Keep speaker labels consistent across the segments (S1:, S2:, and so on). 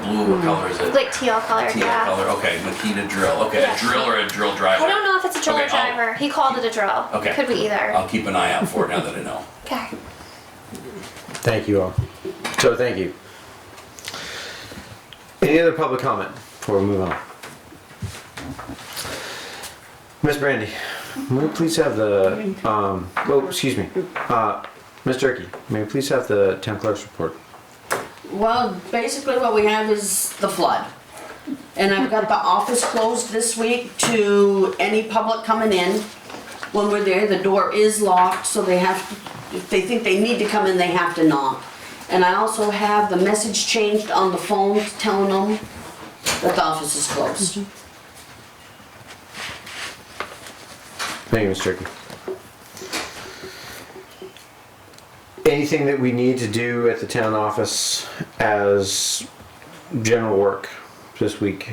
S1: blue, what color is it?
S2: Hmm. Like teal color,
S1: Teal
S2: yeah.
S1: color, okay, Makita drill, okay,
S2: Yeah.
S1: a drill or a drill driver?
S2: I don't know if it's a drill
S1: Okay,
S2: or
S1: I'll-
S2: driver. He called it a drill.
S1: Okay.
S2: Could be either.
S1: I'll keep an eye out for it now that I know.
S2: Okay.
S3: Thank you all. So thank you. Any other public comment before we move on? Miss Brandy, may we please have the, um, oh, excuse me, uh, Miss Turkey, may we please have the town clerk's report?
S4: Well, basically what we have is the flood. And I've got the office closed this week to any public coming in. When we're there, the door is locked, so they have, to- if they think they need to come in, they have to knock. And I also have the message changed on the phones telling them that the office is closed.
S3: Mm-hmm. Thank you, Miss Turkey. Anything that we need to do at the town office as general work this week?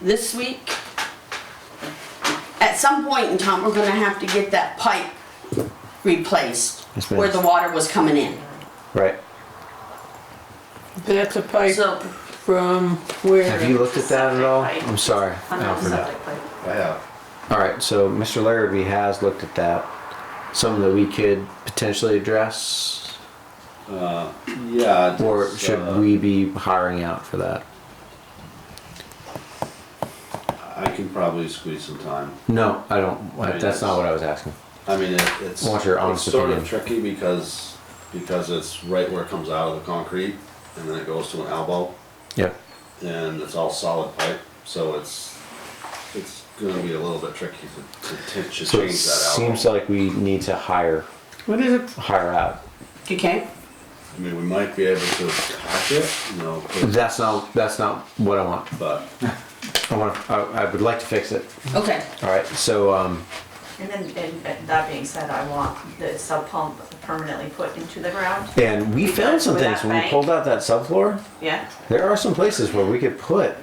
S4: this week. At some point in time, we're gonna have to get that pipe replaced
S3: Yes, ma'am.
S4: where the water was coming in.
S3: Right?
S5: That's a pipe
S4: So,
S5: from where?
S3: Have you looked at that at all?
S6: Septic pipe.
S3: I'm sorry,
S6: On the
S3: Alfred.
S6: septic pipe.
S7: Yeah.
S3: All right, so Mr. Larrabee has looked at that. Something that we could potentially address,
S7: Yeah.
S3: or
S7: it's,
S3: should
S7: uh,
S3: we be hiring out for that?
S7: I can probably squeeze some time.
S3: No, I don't.
S7: Right,
S3: That's not
S7: that's-
S3: what I was asking.
S7: I mean, it, it's.
S3: I want your
S7: It's
S3: honest
S7: sort of
S3: opinion.
S7: tricky because, because it's right where it comes out of the concrete and then it goes to an elbow
S3: Yep.
S7: and it's all solid pipe, so it's, it's gonna be a little bit tricky to, to t- to change
S3: So it
S7: that elbow.
S3: seems like we need to hire
S5: What is it?
S3: hire out.
S4: okay,
S7: I mean, we might be able to patch it, you know, put-
S3: That's not that's not what I want.
S7: but
S3: I want. I, I would like to fix it.
S4: okay,
S3: All right. So um,
S6: And then, and- and that being said, I want the sub pump permanently put into the ground,
S3: and we found some
S6: With that
S3: things when we
S6: bank?
S3: pulled out that subfloor.
S6: yeah?
S3: There are some places where we could put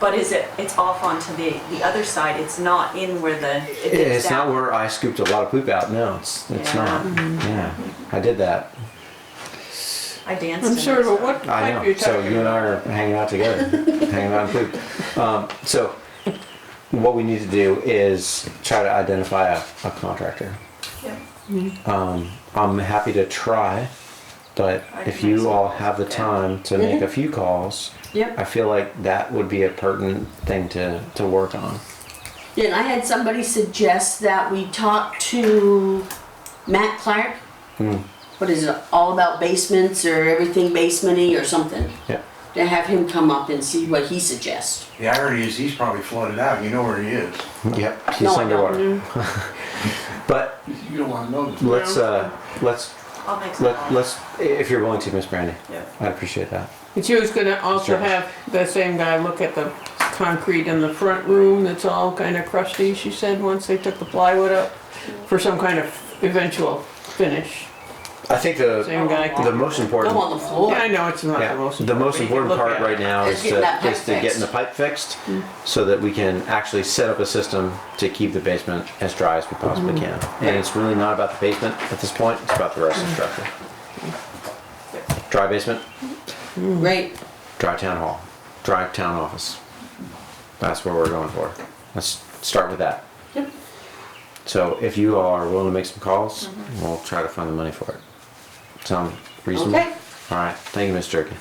S6: But is it, it's off onto the, the other side, it's not in where the. it
S3: Yeah,
S6: dips
S3: it's not
S6: down.
S3: where I scooped a lot of poop out. No, it's it's
S6: Yeah.
S3: not. Yeah, I did that.
S6: I danced in
S5: I'm
S6: it.
S5: sure, but what
S3: I
S5: pipe
S3: know.
S5: you're
S3: So
S5: talking
S3: you and I
S5: about?
S3: are hanging out together, hanging out in poop. Um, so what we need to do is try to identify a, a contractor.
S6: Yeah.
S3: Um, I'm happy to try, but
S6: I
S3: if
S6: can
S3: you
S6: also-
S3: all have the
S6: yeah.
S3: time to make a few calls,
S4: Yep.
S3: I feel like that would be a pertinent thing to to work on.
S4: Then I had somebody suggest that we talk to Matt Clark. What is it, all about basements or everything basementy or something?
S3: Yeah.
S4: To have him come up and see what he suggests.
S8: The irony is he's probably flooded out. You know where he is.
S3: Yep. He's
S4: No, I don't.
S3: underwater. but
S8: You don't want to know this.
S3: let's uh, let's
S6: I'll make some.
S3: Let, let's, if you're willing to, Miss Brandy.
S6: Yeah.
S3: I appreciate that.
S5: But you was gonna also
S3: Sure.
S5: have the same guy look at the concrete in the front room that's all kind of crusty, she said, once they took the plywood up for some kind of eventual finish.
S3: I think the,
S5: Same guy. can-
S3: the most
S4: Go on
S3: important,
S4: the floor.
S5: Yeah, I know it's not
S3: yeah,
S5: the most.
S3: the most
S5: but you can
S3: important
S5: look
S3: part
S5: at
S3: right
S5: it.
S3: now
S4: Is
S3: is
S4: getting
S3: to,
S4: that pipe
S3: is to getting
S4: fixed. Hmm.
S3: the pipe fixed so that we can actually set up a system to keep the basement as dry as we
S4: Hmm.
S3: possibly can. And it's really not about the basement at this point, it's about the rest of the structure.
S4: Hmm.
S3: Dry basement,
S4: Right,
S3: dry town hall, dry town office. That's what we're going for. Let's start with that.
S4: Yep.
S3: So if you are willing to make some calls,
S4: Mm-hmm.
S3: we'll try to find the money for it. Sound reasonable?
S4: Okay.
S3: All right, thank you, Ms. Jerky.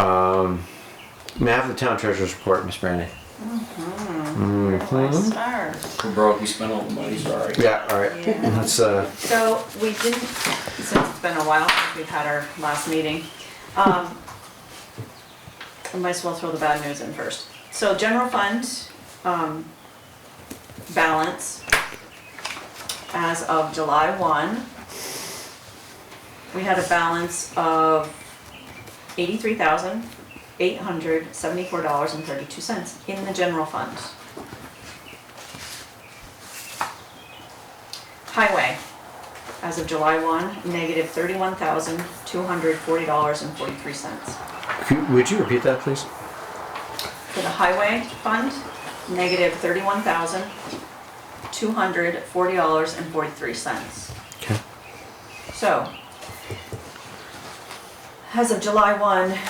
S3: Um, may I have the town treasurer's report, Ms. Brandy?
S6: Where's my stars?
S1: We're broke, we spent all the money, sorry.
S3: Yeah, all right.
S6: Yeah.
S3: Let's, uh,
S6: So we didn't, since it's been a while since we've had our last meeting, um, I might as well throw the bad news in first. So general fund, um, balance as of July one, we had a balance of eighty-three thousand, eight hundred seventy-four dollars and thirty-two cents in the general fund. Highway, as of July 1, negative $31,240.43.
S3: could- would you repeat that, please?
S6: For the highway fund, negative $31,240.43.
S3: Okay.
S6: So, as of July 1,